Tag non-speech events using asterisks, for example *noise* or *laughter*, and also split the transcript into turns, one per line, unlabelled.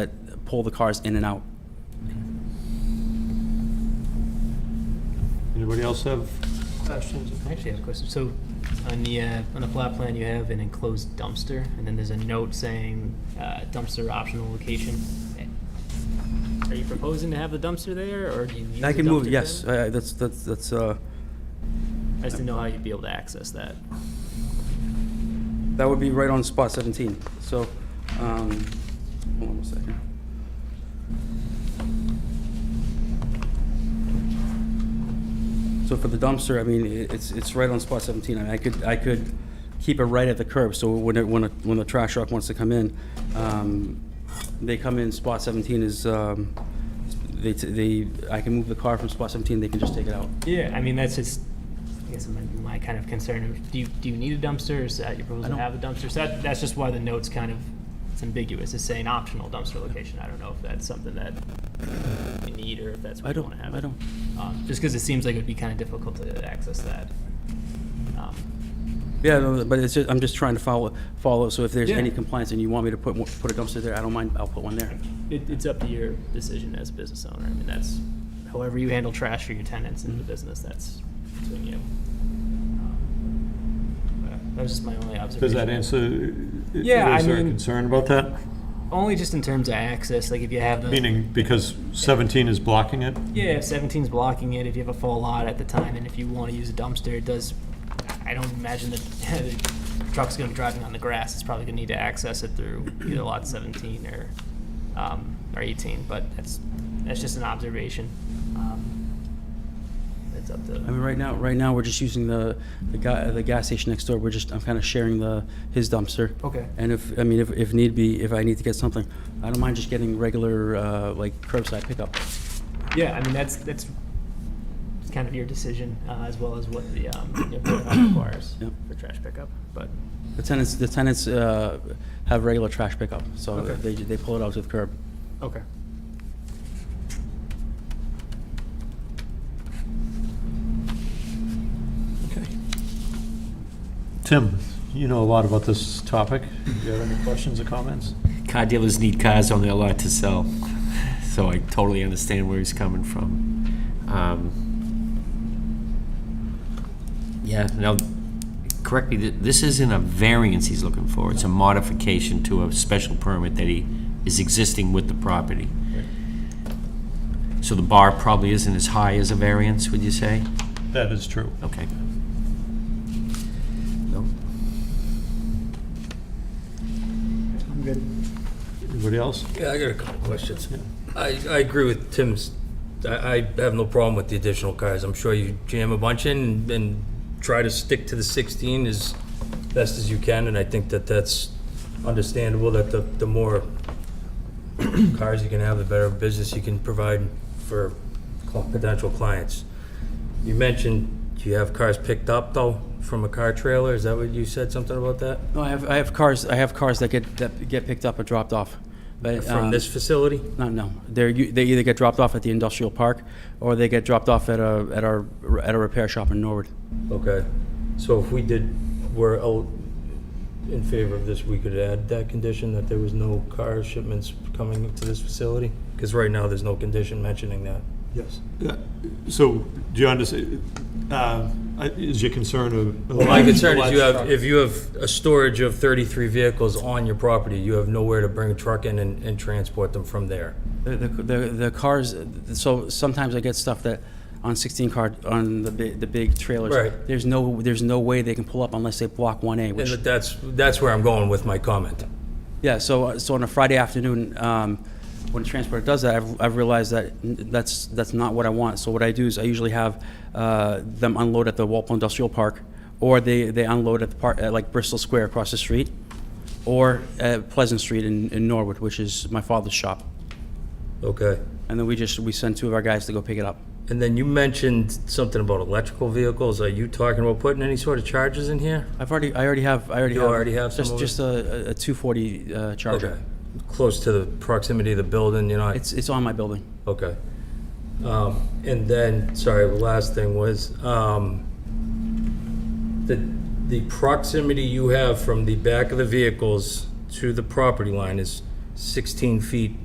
that pull the cars in and out.
Anybody else have questions?
I actually have a question. So on the, uh, on the flat plan, you have an enclosed dumpster, and then there's a note saying uh, dumpster optional location. Are you proposing to have the dumpster there, or do you use the
I can move,
dumpster
yes,
then?
I- I- that's, that's, that's, uh,
I just didn't know how you'd be able to access that.
that would be right on spot 17. So, um, hold on a second. So for the dumpster, I mean, i- it's, it's right on spot 17. I mean, I could, I could keep it right at the curb, so when, it- when, a- when the trash truck wants to come in, um, they come in, spot 17 is, um, they, t- they, I can move the car from spot 17, they can just take it out.
Yeah, I mean, that's just, I guess my, my kind of concern. Do you, do you need a dumpster? Is that your proposal to have a dumpster? So that, that's just why the note's kind of, it's ambiguous. It's saying optional dumpster location. I don't know if that's something that you need or if that's
I
what you
don't-
want to have.
I
it.
don't.
Um, Just because it seems like it'd be kind of difficult to access that. Um,
Yeah, no, but it's just, I'm just trying to follow, follow, so if there's
Yeah.
any compliance and you want me to put, one- put a dumpster there, I don't mind, I'll put one there.
It, it's up to your decision as a business owner. I mean, that's, however you handle trash for your tenants in the
Mm-hmm.
business, that's between you. Um, but That was just my only observation.
Does that answer?
Yeah,
Is
I
there a
mean-
concern about that?
Only just in terms of access, like if you have the.
Meaning, because 17 is blocking it?
Yeah, if 17's blocking it, if you have a full lot at the time, and if you want to use a dumpster, it does, I don't imagine that *laughs* the truck's going to be driving on the grass. It's probably going to need to access it through either lot 17 or, um, or 18, but that's, that's just an observation. Um, It's up
I
to,
mean, right now, right now, we're just using the, the guy, the gas station next door, we're just, I'm kind of sharing the, his dumpster.
Okay.
And if, I mean, if, if need be, if I need to get something, I don't mind just getting regular, uh, like curbside pickup.
yeah, I mean, that's, that's it's kind of your decision, uh, as well as what the, um, you know, protocol requires
Yep.
for trash pickup, but.
The tenants, the tenants, uh, have regular trash pickup, so
Okay.
they, they pull it out to the curb.
Okay.
Okay. Tim, you know a lot about this topic. Do you have any questions or comments?
Car dealers need cars on their lot to sell, so I totally understand where he's coming from. Um, Yeah, now, correct me, th- this isn't a variance he's looking for, it's a modification to a special permit that he is existing with the property. So the bar probably isn't as high as a variance, would you say?
That is true.
Okay. No?
Anybody else?
Yeah, I got a couple questions. I, I agree with Tim's, I, I have no problem with the additional cars. I'm sure you jam a bunch in and- and try to stick to the 16 as best as you can, and I think that that's understandable, that the, the more cars you can have, the better business you can provide for cl- potential clients. You mentioned you have cars picked up, though, from a car trailer, is that what you said, something about that?
No, I have, I have cars, I have cars that get, that get picked up or dropped off. but,
From
um,
this facility?
No, no. They're, u- they either get dropped off at the industrial park, or they get dropped off at a, at our, at a repair shop in Norwood.
Okay, so if we did, were out in favor of this, we could add that condition that there was no car shipments coming to this facility? Because right now, there's no condition mentioning that.
Yes. So, do you understand, uh, I- is your concern of?
My concern is you have, if you have a storage of 33 vehicles on your property, you have nowhere to bring a truck in and, and transport them from there.
The, the, the- the cars, so sometimes I get stuff that, on 16 car, on the, bi- the big trailers.
Right.
There's no, there's no way they can pull up unless they block 1A,
And
which,
that's, that's where I'm going with my comment.
yeah, so, uh, so on a Friday afternoon, um, when transport does that, I've, I've realized that n- that's, that's not what I want. So what I do is I usually have, uh, them unload at the Walpole Industrial Park, or they, they unload at the park, at like Bristol Square across the street, or at Pleasant Street in, in Norwood, which is my father's shop.
Okay.
And then we just, we send two of our guys to go pick it up.
And then you mentioned something about electrical vehicles. Are you talking about putting any sort of charges in here?
I've already, I already have, I already
You
have.
already have some
Just,
of it?
just a, a- a 240 uh,
Okay.
Charger.
Close to the proximity of the building, you're not?
It's, it's on my building.
Okay. Um, And then, sorry, the last thing was, um, the, the proximity you have from the back of the vehicles to the property line is 16 feet